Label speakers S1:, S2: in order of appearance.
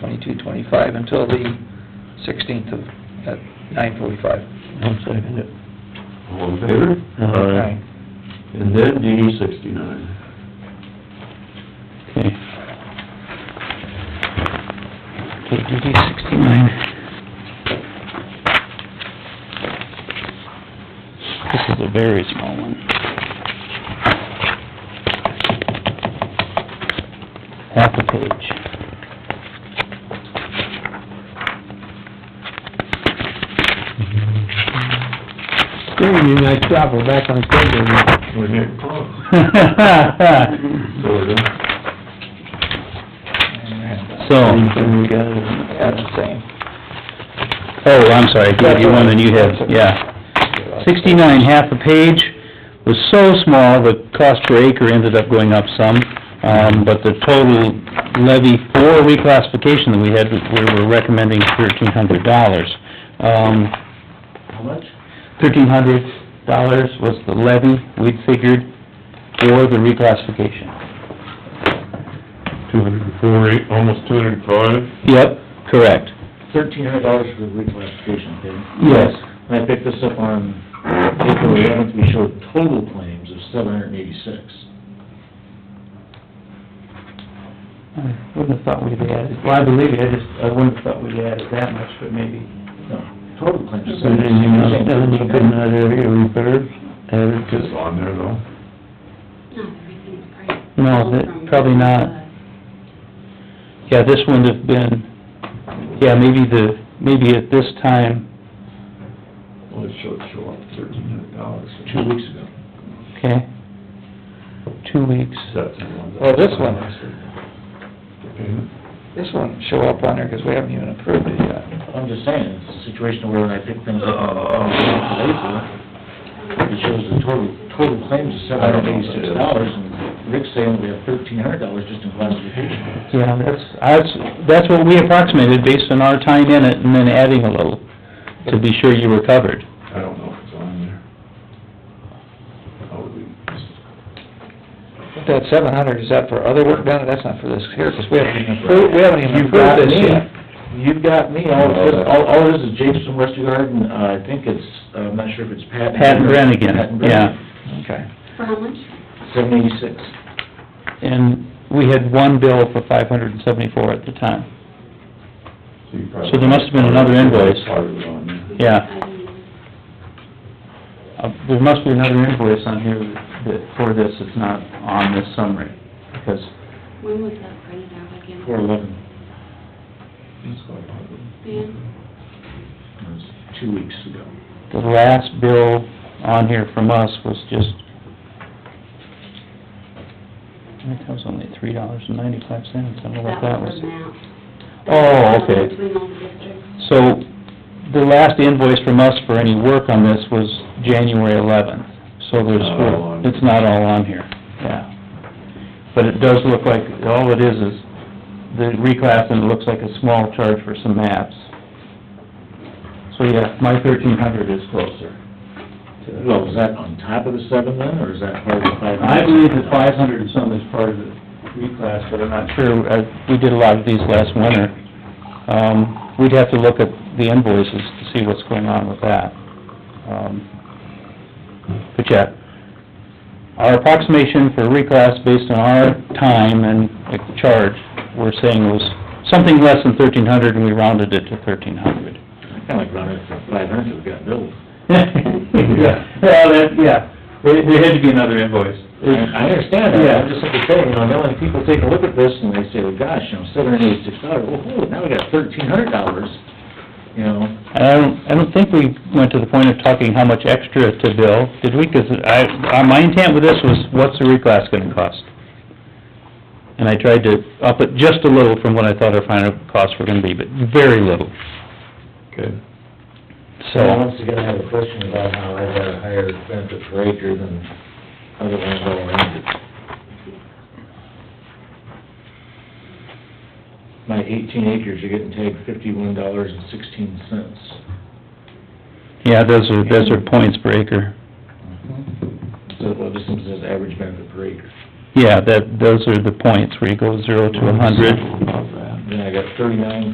S1: twenty-two, twenty-five until the sixteenth of, at nine forty-five.
S2: I'll second it.
S3: All in favor?
S4: Uh-huh.
S1: Aye.
S3: And then DD sixty-nine.
S2: Okay. Okay, DD sixty-nine. This is a very small one. Half a page.
S5: Dude, nice job, we're back on schedule.
S3: We're getting close. So we're done.
S2: So,
S3: Anything we got?
S1: Yeah, it's the same.
S2: oh, I'm sorry, I gave you one and you had, yeah. Sixty-nine, half a page, was so small, the cost per acre ended up going up some, um, but the total levy for reclassification that we had, we were recommending thirteen hundred dollars. Um,
S3: How much?
S2: thirteen hundred dollars was the levy we'd figured for the reclassification.
S6: Two hundred and four, eight, almost two hundred and five.
S2: Yep, correct.
S4: thirteen hundred dollars for the reclassification thing.
S2: Yes.
S4: And I picked this up on April eleventh, we showed total claims of seven hundred and eighty-six.
S5: I wouldn't have thought we'd have added, well, I believe you, I just, I wouldn't have thought we'd have added that much, but maybe.
S4: No, total claims of
S3: Is there anything else done you couldn't
S4: seven.
S3: add area repairs? Added just on there though?
S7: Not everything's priced.
S2: No, that- probably not. Yeah, this wouldn't have been, yeah, maybe the, maybe at this time,
S3: Well, it should show up thirteen hundred dollars.
S4: Two weeks ago.
S2: okay, two weeks.
S3: That's the one.
S4: Oh,
S1: Well, this one.
S3: The payment?
S1: This won't show up on there because we haven't even approved it yet.
S4: I'm just saying, it's a situation where when I pick things up on April, it shows the total, total claims of seven hundred and eighty-six dollars, and Rick's saying we have thirteen hundred dollars just in classification.
S2: Yeah, that's, that's, that's what we approximated based on our time in it and then adding a little to be sure you were covered.
S3: I don't know if it's on there. How would we,
S1: That seven hundred, is that for other work done? That's not for this here, because we haven't even approved, we haven't even approved this yet.
S4: You've got me, all, it is- all, all it is is Japes from Westergaard, and uh, I think it's, I'm not sure if it's Pat.
S2: Pat and Brennigan, yeah.
S1: Okay.
S7: For how much?
S4: Seven eighty-six.
S2: And we had one bill for five hundred and seventy-four at the time.
S3: so you probably.
S2: So there must have been another invoice.
S3: Part of it on there.
S2: Yeah.
S7: I don't know.
S2: Uh, there must be another invoice on here that, for this, it's not on this summary, because
S7: When was that printed out again?
S4: Four eleven.
S3: It's quite a lot of it.
S7: Ben?
S4: It was two weeks ago.
S2: the last bill on here from us was just, I think that was only three dollars and ninety-five cents, I don't know what that
S7: for
S2: was.
S7: Mount.
S2: Oh, okay.
S7: Between all the districts.
S2: So, the last invoice from us for any work on this was January eleventh, so there's,
S3: Not all on.
S2: it's not all on here, yeah. But it does look like, all it is is the reclass, and it looks like a small charge for some maps. So, yeah, my thirteen hundred is closer.
S4: Well, is that on top of the seven then, or is that part of the five?
S2: I believe that five hundred and some is part of the reclass, but I'm not sure, uh, we did a lot of these last winter. Um, we'd have to look at the invoices to see what's going on with that. Um, But yeah, our approximation for reclass based on our time and uh, charge, we're saying was something less than thirteen hundred, and we rounded it to thirteen hundred.
S4: Kinda like running it for five hundred, we got billed.
S2: Yeah, well, that, yeah, there, there had to be another invoice.
S4: I I understand that,
S2: Yeah.
S4: I'm just simply saying, you know, now when people take a look at this and they say, well, gosh, you know, seven hundred eighty-six dollars, well, holy, now we got thirteen hundred dollars, you know?
S2: And I don't, I don't think we went to the point of talking how much extra to bill, did we? 'Cause I, uh, my intent with this was, what's the reclass gonna cost? And I tried to up it just a little from what I thought our final costs were gonna be, but very little,
S3: Okay.
S2: so...
S4: Now, Once again, I have a question about how I got a higher benefit per acre than other ones all around it. My eighteen acres, you're getting tagged fifty-one dollars and sixteen cents.
S2: Yeah, those are, those are points per acre.
S4: So, well, this one says average benefit per acre.
S2: Yeah, that, those are the points where you go zero to a hundred.
S3: About that.
S4: then I got thirty-nine